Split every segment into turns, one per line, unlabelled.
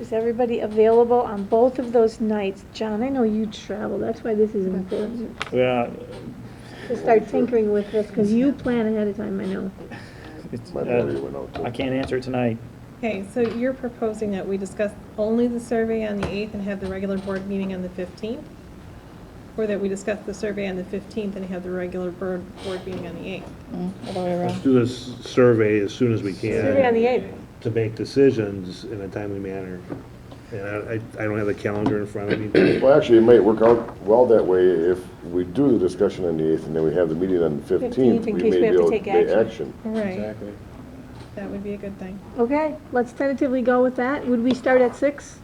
Is everybody available on both of those nights? John, I know you travel, that's why this is important,
Well,
to start tinkering with this, because you plan ahead of time, I know.
it's,
My memory
uh,
went out
I
too.
can't answer tonight.
Okay, so you're proposing that we discuss only the survey on the 8th and have the regular board meeting on the 15th? Or that we discuss the survey on the 15th and have the regular board, board meeting on the 8th?
Let's do this survey as soon as we
Survey on
can
the eighth.
to make decisions in a timely manner. And I, I- I don't have the calendar in front of me.
Well, actually, it might work out well that way if we do the discussion on the 8th and then we have the meeting on the
15th,
15th.
in
We
case we
may be
have to
able
take
make
action.
Right, that would be a good thing.
Okay, let's tentatively go with that. Would we start at six?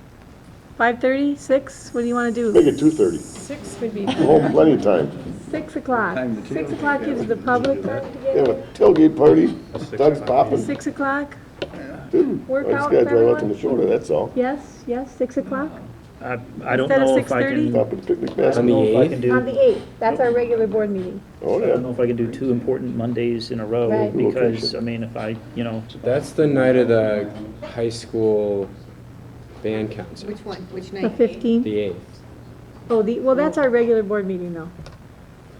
Five-thirty, six? What do you want to
Make
do?
it 2:30.
6 would be,
Oh, plenty of time.
Six o'clock. Six o'clock gives the public time to get
Have a tailgate party, Doug's popping.
Six o'clock?
I just
Workout for
gotta drive out to
everyone?
Minnesota, that's all.
Yes, yes, six o'clock?
I, I don't
Instead of
know if I
6:30?
can, I
Stop at Picnic
don't
Basket.
know if I can
On
do,
the eighth, that's our regular board meeting.
Oh,
I don't know
yeah.
if I can do two important Mondays in a row,
Right.
because, I mean, if I, you know,
That's the night of the high school band concert,
Which one, which night?
The fifteenth?
the eighth.
Oh, the, well, that's our regular board meeting though.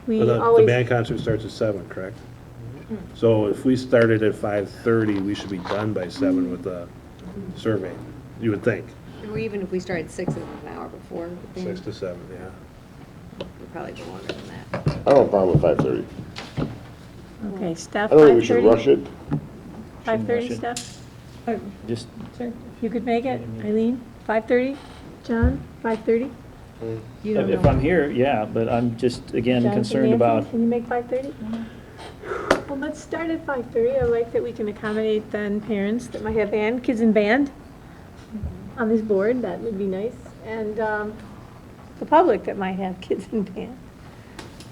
We
The the
always,
band concert starts at seven, correct? So if we started at five-thirty, we should be done by seven with the survey, you would think,
Or even if we started six and an hour before, then
six
it'd
to seven, yeah.
probably be longer than that.
I don't have a problem with 5:30.
okay, Steph,
I don't think we
five
should rush
thirty?
it.
Five thirty,
Shouldn't
Steph?
uh,
just,
sure.
You could make it, Eileen? Five thirty? John, five thirty?
You
if
don't
if
know.
I'm here, yeah, but I'm just, again, concerned about,
Can you make five thirty? Well, let's start at five thirty. I like that we can accommodate then parents that might have band, kids in band on this board, that would be nice. And, um, the public that might have kids in band.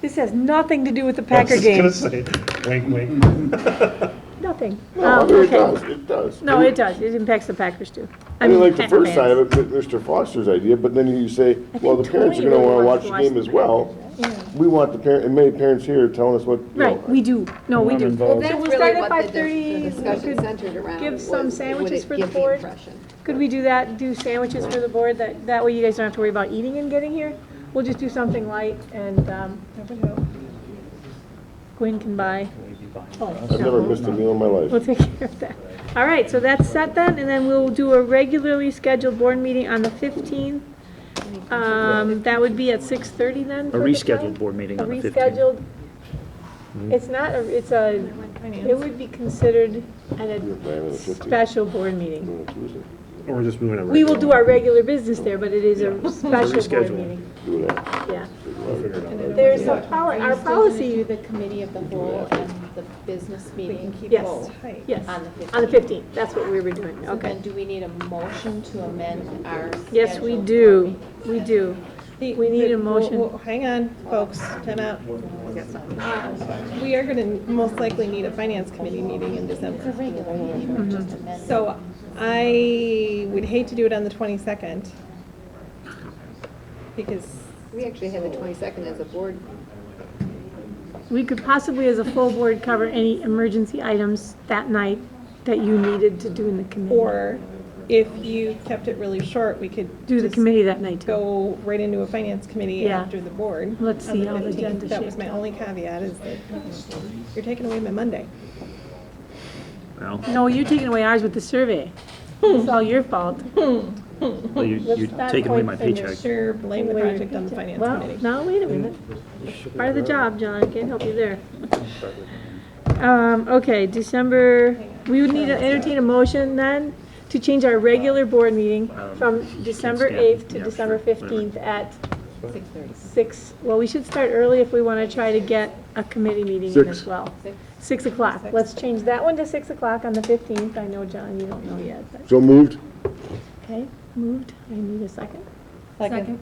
This has nothing to do with the Packer
I
game,
was just gonna say, wink, wink.
nothing.
No, I
Um,
mean, it
okay.
does, it does.
No, it does. It impacts the Packers too.
I mean, like the
Packer
first side
fans.
of it, but Mr. Foster's idea, but then you say, well, the parents are
Tony
gonna wanna
really
watch
wants to
the
watch
game
the
as well. We want the parent, and many parents here are telling us what, you know.
Right, we do. No, we
I'm
do.
involved.
So
Well,
That's
we'll
really
start at
what the
five
dis- the
thirty.
Discussion centered around.
give some
was,
sandwiches
would it
for the
give
board?
impression?
Could we do that, do sandwiches for the board, that, that way you guys don't have to worry about eating and getting here? We'll just do something light and, um,
That would help.
Gwen can buy, Oh,
I've never missed a meal in my
we'll
life.
take care of that. All right, so that's set then, and then we'll do a regularly scheduled board meeting on the fifteenth. Um, that would be at six thirty then?
a
for the time?
rescheduled board meeting
A
on the fifteenth. Hmm?
rescheduled, it's not, a it's a, it would be considered an a special board meeting.
On a Tuesday,
Or we're just moving it.
We will do our regular business there, but it is a special board
rescheduled.
meeting,
do that.
yeah. There's
There's
a poli, our
Do
policy,
the committee of the whole and the business meeting
yes,
both
yes,
on the
on the
15th.
15th, that's what we were doing,
So then
okay.
do we need a motion to amend our schedule?
Yes, we
for
do,
meeting?
we do.
The-
We need a
the- we'll-
motion.
we'll- Hang on, folks, time out. We are gonna most likely need a finance committee meeting in December.
It's a regular meeting, we're just
Mm-hmm.
amending.
So I would hate to do it on the 22nd, because,
We actually had the twenty-second as a board.
We could possibly, as a full board, cover any emergency items that night that you needed to do in the committee.
or if you kept it really short, we could
Do the
just
committee that night too.
go right into a finance committee
Yeah.
after the board.
Let's
on
see how the
15th.
agenda
That was
shaped
my only caveat, is that you're taking away my Monday.
Well,
No, you're taking away ours with the survey. It's all your fault.
well, you-
Let's
you're
not
taking away
point
my
fingers.
paycheck.
Sure, blame the project on the finance
Well,
committee.
now, wait a
Mm.
minute. Part of the job, John, can't help you there. Um, okay, December, we would need to entertain a motion then to change our regular board meeting from December
Um, stand-
8th to
yeah,
December
sure, whatever.
15th at? 6:30. 6, well, we should start early if we want to try to get a committee meeting in as well. 6 o'clock. Let's change that one to 6 o'clock on the 15th. I know, John, you don't know yet, but,
So moved?
okay, moved. I need a second.
Second.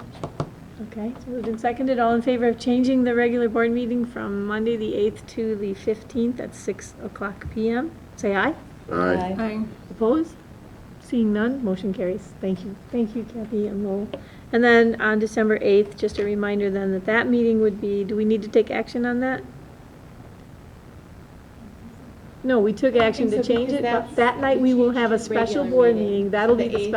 Okay, it's moved and seconded. All in favor of changing the regular board meeting from Monday, the 8th to the 15th at 6 o'clock PM? Say aye.
Aye.
Opposed? Seeing none, motion carries. Thank you. Thank you, Kathy and Lowell. And then on December 8th, just a reminder then that that meeting would be, do we need to take action on that? No, we took action to change it, but that night we will have a special board meeting. That'll be the special.